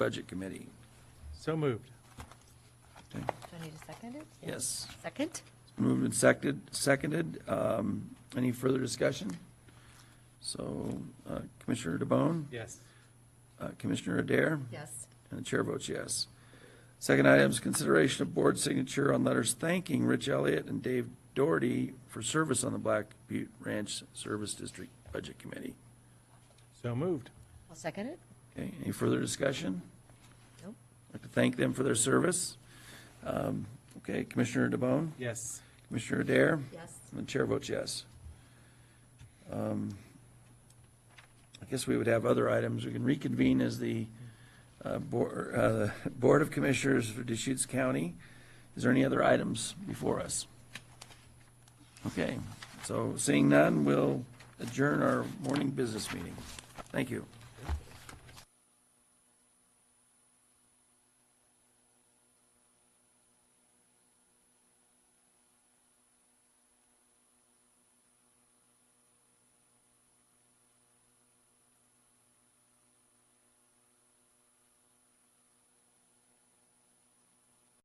Budget Committee. So moved. Do I need to second it? Yes. Second? Moved and seconded, seconded. Um, Any further discussion? So uh, Commissioner DeBonne, Yes. uh, Commissioner Adair, Yes. and the chair votes yes. Second item is consideration of board signature on letters thanking Rich Elliott and Dave Doherty for service on the Black Butte Ranch Service District Budget Committee. So moved. I'll second it. Okay, any further discussion? Nope. I'd like to thank them for their service. Um, Okay, Commissioner DeBonne, Yes. Commissioner Adair, Yes. And the chair votes yes. Um, I guess we would have other items. We can reconvene as the uh, Board uh, the Board of Commissioners for Deschutes County. Is there any other items before us? Okay, so seeing none, we'll adjourn our morning business meeting. Thank you.